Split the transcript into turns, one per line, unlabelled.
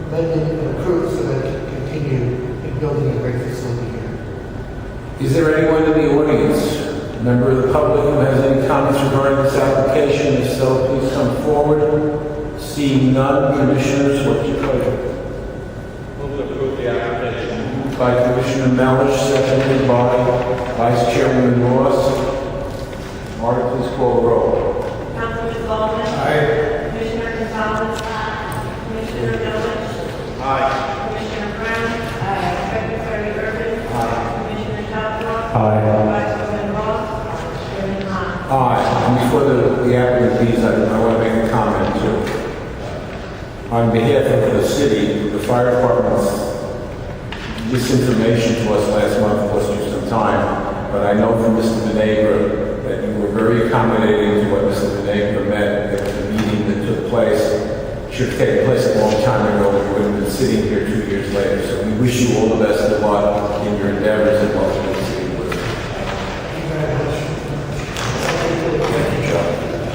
let it improve so that it can continue in building a great facility here.
Is there anyone in the audience, member of the public, who has any comments regarding this application? If so, please come forward. Seeing none, commissioners, what's your pleasure?
Move to approve the application.
Moved By Commissioner Malish, seconded by Vice Chairman Ross. Marta, please call the roll.
Councilman Baldwin. Commissioner Gonzalez. Commissioner Milovich.
Aye.
Commissioner Brown. Secretary Urban. Commissioner Southwell.
Aye.
Vice President Ross. Chairman Hahn.
Aye, and before the, the applicant leaves, I, I want to make a comment too. On behalf of the city, the fire department's this information to us last month cost you some time, but I know from Mr. Benega that you were very accommodating to what Mr. Benega meant, that the meeting that took place should have taken place a long time ago, we would have been sitting here two years later. So we wish you all the best of luck in your endeavors, and